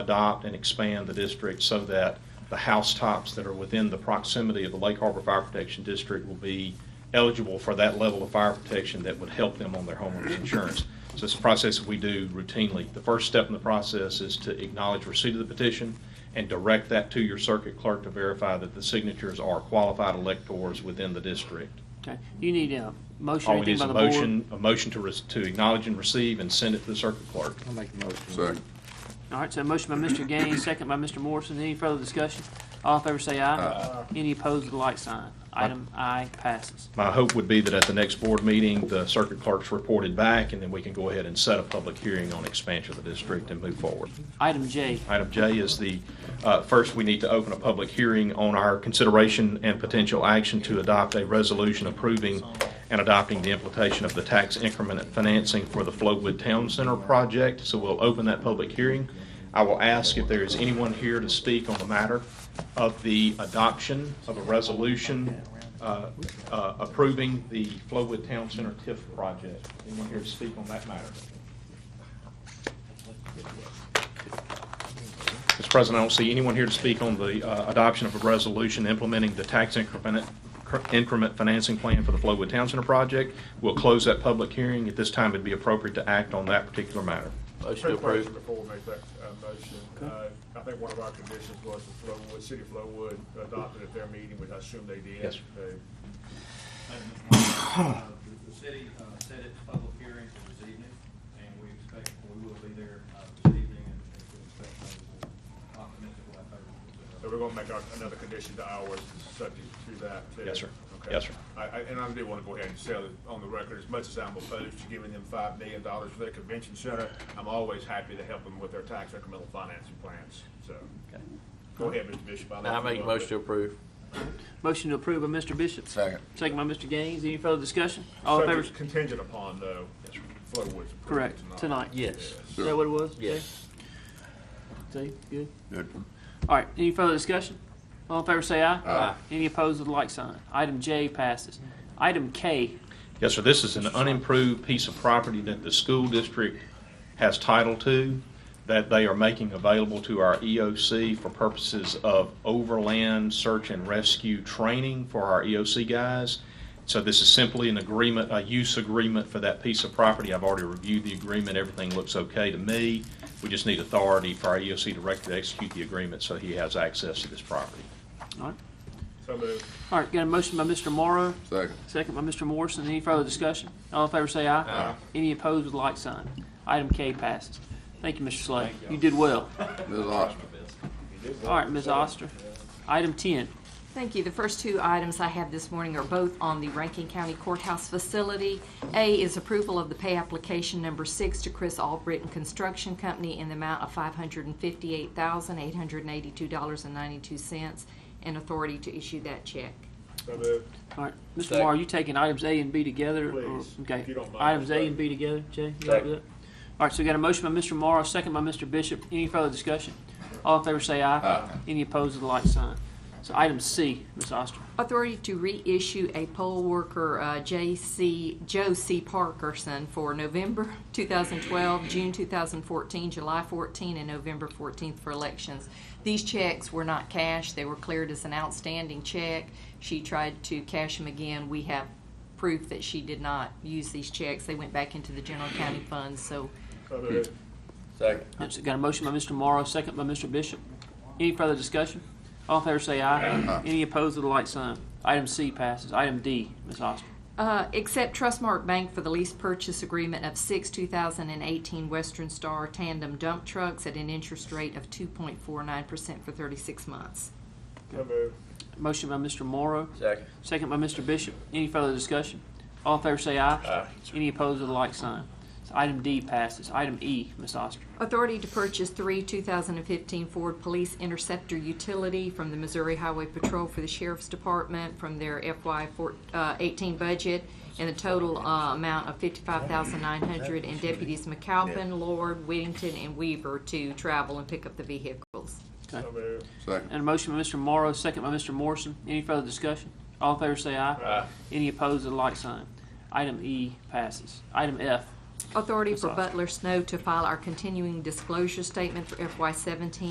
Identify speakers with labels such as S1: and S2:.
S1: adopt and expand the district so that the housetops that are within the proximity of the Lake Harbor Fire Protection District will be eligible for that level of fire protection that would help them on their homeowners insurance. So it's a process that we do routinely. The first step in the process is to acknowledge receipt of the petition and direct that to your circuit clerk to verify that the signatures are qualified electors within the district.
S2: Okay, you need a motion,
S1: All we need
S2: anything
S1: is
S2: by
S1: a
S2: the board?
S1: motion, a motion to, rec- to acknowledge and receive and send it to the circuit clerk.
S3: I'll make the motion.
S4: Second.
S2: All right, so a motion by Mr. Gaines, second by Mr. Morrison, any further discussion? All in favor say aye. Any opposed with a like sign. Item I passes.
S1: My hope would be that at the next board meeting, the circuit clerk's reported back, and then we can go ahead and set a public hearing on expansion of the district and move forward.
S2: Item J,
S1: Item J is the, uh, first, we need to open a public hearing on our consideration and potential action to adopt a resolution approving and adopting the implementation of the tax increment financing for the Flowood Town Center project. So we'll open that public hearing. I will ask if there is anyone here to speak on the matter of the adoption of a resolution uh, uh, approving the Flowood Town Center TIF project. Anyone here to speak on that matter? Mr. President, I don't see anyone here to speak on the uh, adoption of a resolution implementing the tax increment increment financing plan for the Flowood Town Center project. We'll close that public hearing. At this time, it'd be appropriate to act on that particular matter.
S5: Motion approved. Before we make that uh, motion, uh, I think one of our conditions was the Flowood, City of Flowood adopted at their meeting, which I assume they did.
S1: Yes, sir.
S5: They-
S6: Uh, The city uh, set its public hearing for this evening, and we expect, we will be there uh, this evening, and we expect those who are optimistic will have favorable.
S5: So we're gonna make our- another condition to ours, subject to that, too.
S1: Yes, sir.
S5: Okay.
S1: Yes, sir.
S5: I, I, and I do wanna go ahead and sell it on the record, as much as I'm opposed to giving them five million dollars for their convention center, I'm always happy to help them with their tax incremental financing plans, so. Go ahead, Mr. Bishop. I'll let
S6: Now I
S5: you
S6: make a
S5: go.
S6: motion to approve.
S2: motion to approve by Mr. Bishop.
S4: Second.
S2: Second by Mr. Gaines, any further discussion? All in favor?
S5: Subject Contingent upon, though, Flowood's approval
S2: Correct, tonight.
S6: Yes.
S2: Is that what it was?
S6: Yes.
S2: See, good.
S4: Good.
S2: All right, any further discussion? All in favor say aye.
S4: Aye.
S2: Any opposed with a like sign. Item J passes. Item K,
S1: Yes, sir, this is an unimproved piece of property that the school district has title to, that they are making available to our EOC for purposes of overland search and rescue training for our EOC guys. So this is simply an agreement, a use agreement for that piece of property. I've already reviewed the agreement, everything looks okay to me. We just need authority for our EOC director to execute the agreement so he has access to this property.
S2: all right.
S5: So moved.
S2: All right, got a motion by Mr. Morrow,
S4: Second.
S2: second by Mr. Morrison. Any further discussion? All in favor say aye. Any opposed with a like sign. Item K passes. Thank you, Mr. Slay. You did well.
S4: Ms. Oster.
S2: All right, Ms. Oster. Item ten,
S7: Thank you. The first two items I have this morning are both on the Rankin County Courthouse facility. A is approval of the pay application number six to Chris Albritton Construction Company in the amount of five hundred and fifty-eight thousand, eight hundred and eighty-two dollars and ninety-two cents, and authority to issue that check.
S5: So moved.
S2: all right. Mr.
S6: Second.
S2: Morrow, you taking items A and B together? or-
S5: Please,
S2: Okay.
S5: if you don't mind.
S2: Items A and B together, Jay? you all right with that? All right, so we got a motion by Mr. Morrow, second by Mr. Bishop. Any further discussion? All in favor say aye.
S4: Aye.
S2: Any opposed with a like sign. So item C, Ms. Oster.
S7: Authority to reissue a poll worker, uh, J.C., Joe C. Parkerson for November 2012, June 2014, July 14, and November 14th for elections. These checks were not cashed, they were cleared as an outstanding check. She tried to cash them again. We have proof that she did not use these checks. They went back into the general county funds, so
S5: So moved.
S6: Second.
S2: That's- Got a motion by Mr. Morrow, second by Mr. Bishop. Any further discussion? All in favor say aye. Any opposed with a like sign. Item C passes. Item D, Ms. Oster.
S7: Uh, Accept Trustmark Bank for the lease purchase agreement of six 2018 Western Star tandem dump trucks at an interest rate of 2.49% for 36 months.
S5: So moved.
S2: Motion by Mr. Morrow,
S6: Second.
S2: second by Mr. Bishop. Any further discussion? All in favor say aye. Any opposed with a like sign. So item D passes. Item E, Ms. Oster.
S7: Authority to purchase three 2015 Ford Police Interceptor utility from the Missouri Highway Patrol for the Sheriff's Department from their FY four- uh, 18 budget in the total uh, amount of 55900 and deputies McAlpin, Lord, Whittington, and Weaver to travel and pick up the vehicles.
S5: So moved.
S4: Second.
S2: And a motion by Mr. Morrow, second by Mr. Morrison. Any further discussion? All in favor say aye. Any opposed with a like sign. Item E passes. Item F,
S7: Authority for
S2: Ms. Oster.
S7: Butler Snow to file our continuing disclosure statement for FY seventeen